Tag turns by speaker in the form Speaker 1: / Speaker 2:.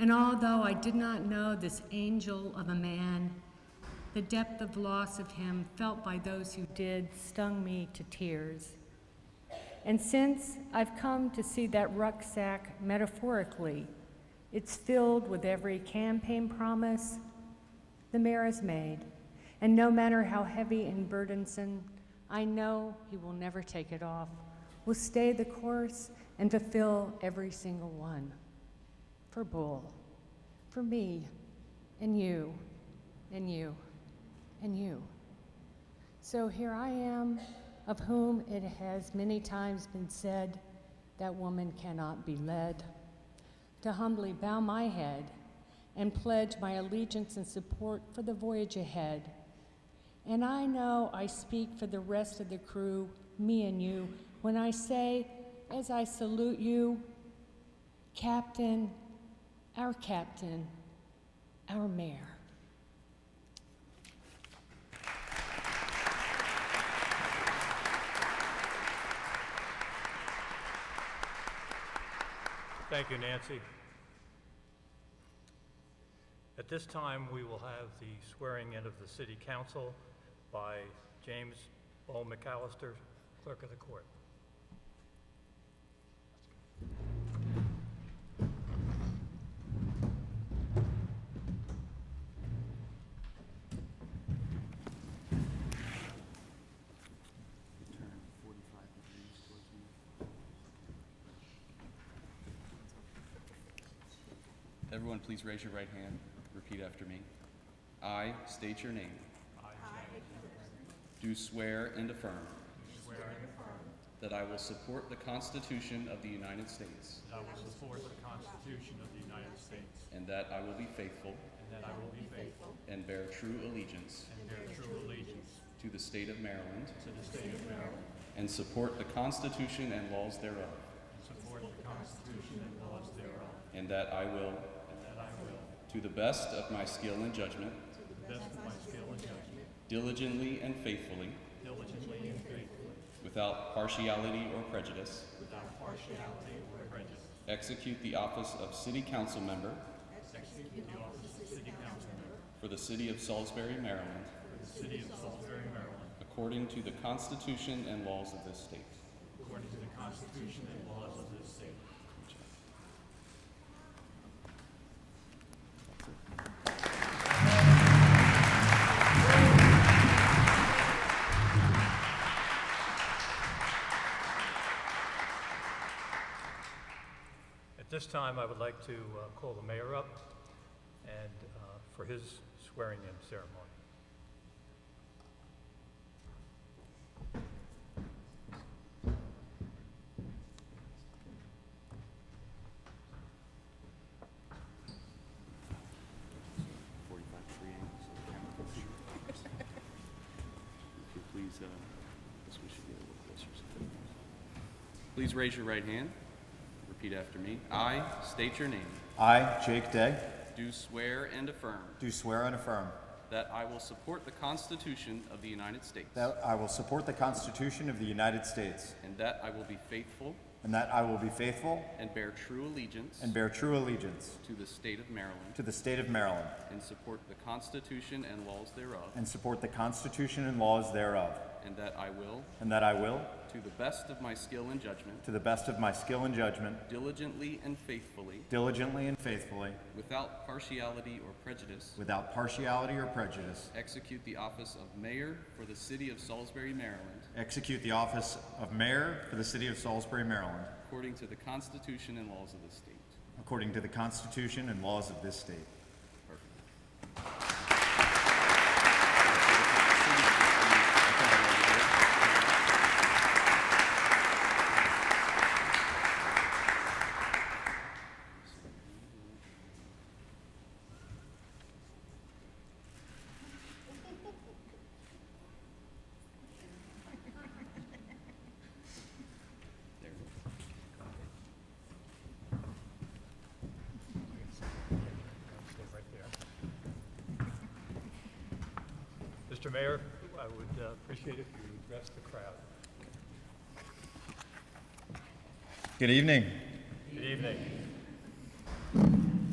Speaker 1: And although I did not know this angel of a man, the depth of loss of him felt by those who did stung me to tears. And since I've come to see that rucksack metaphorically, it's filled with every campaign promise the mayor has made. And no matter how heavy and burdensome, I know he will never take it off, will stay the course and fulfill every single one. For Bull, for me, and you, and you, and you. So here I am, of whom it has many times been said, that woman cannot be led, to humbly bow my head and pledge my allegiance and support for the voyage ahead. And I know I speak for the rest of the crew, me and you, when I say, as I salute you, Captain, our captain, our mayor.
Speaker 2: Thank you, Nancy. At this time, we will have the swearing in of the city council by James O. McAllister, clerk of the court.
Speaker 3: turn 45 degrees towards me.
Speaker 4: Everyone, please raise your right hand. Repeat after me. I state your name. Do swear and affirm. That I will support the Constitution of the United States
Speaker 2: I will support the Constitution of the United States
Speaker 4: and that I will be faithful
Speaker 2: and that I will be faithful
Speaker 4: and bear true allegiance
Speaker 2: and bear true allegiance
Speaker 4: to the state of Maryland
Speaker 2: to the state of Maryland
Speaker 4: and support the Constitution and laws thereof.
Speaker 2: and support the Constitution and laws thereof,
Speaker 4: And that I will,
Speaker 2: and that I will,
Speaker 4: to the best of my skill and judgment,
Speaker 2: to the best of my skill and judgment,
Speaker 4: diligently and faithfully,
Speaker 2: diligently and faithfully,
Speaker 4: without partiality or prejudice,
Speaker 2: without partiality or prejudice,
Speaker 4: Execute the office of City Council Member
Speaker 2: execute the office of city council member
Speaker 4: for the City of Salisbury, Maryland,
Speaker 2: for the city of Salisbury, Maryland,
Speaker 4: according to the Constitution and laws of this state.
Speaker 2: According to the Constitution and laws of this state. At this time, I would like to uh, call the mayor up and uh, for his swearing-in ceremony.
Speaker 3: So 45 degree angle, so the camera can see. If you please, uh, I guess we should get a little closer. so they can-
Speaker 4: Please raise your right hand. Repeat after me. I state your name.
Speaker 5: I, Jake Day,
Speaker 4: Do swear and affirm
Speaker 5: do swear and affirm
Speaker 4: that I will support the Constitution of the United States
Speaker 5: that I will support the Constitution of the United States
Speaker 4: and that I will be faithful
Speaker 5: and that I will be faithful
Speaker 4: and bear true allegiance
Speaker 5: and bear true allegiance
Speaker 4: to the state of Maryland
Speaker 5: to the state of Maryland
Speaker 4: and support the Constitution and laws thereof
Speaker 5: and support the Constitution and laws thereof,
Speaker 4: and that I will,
Speaker 5: and that I will,
Speaker 4: to the best of my skill and judgment,
Speaker 5: to the best of my skill and judgment,
Speaker 4: diligently and faithfully
Speaker 5: diligently and faithfully,
Speaker 4: Without partiality or prejudice.
Speaker 5: without partiality or prejudice,
Speaker 4: Execute the office of mayor for the city of Salisbury, Maryland,
Speaker 5: execute the office of mayor for the city of Salisbury, Maryland,
Speaker 4: according to the Constitution and laws of the state.
Speaker 5: according to the Constitution and laws of this state.
Speaker 4: There.
Speaker 2: Stay right there. Mr. Mayor, I would uh, appreciate if you would address the crowd.
Speaker 5: Good evening.
Speaker 2: Good evening.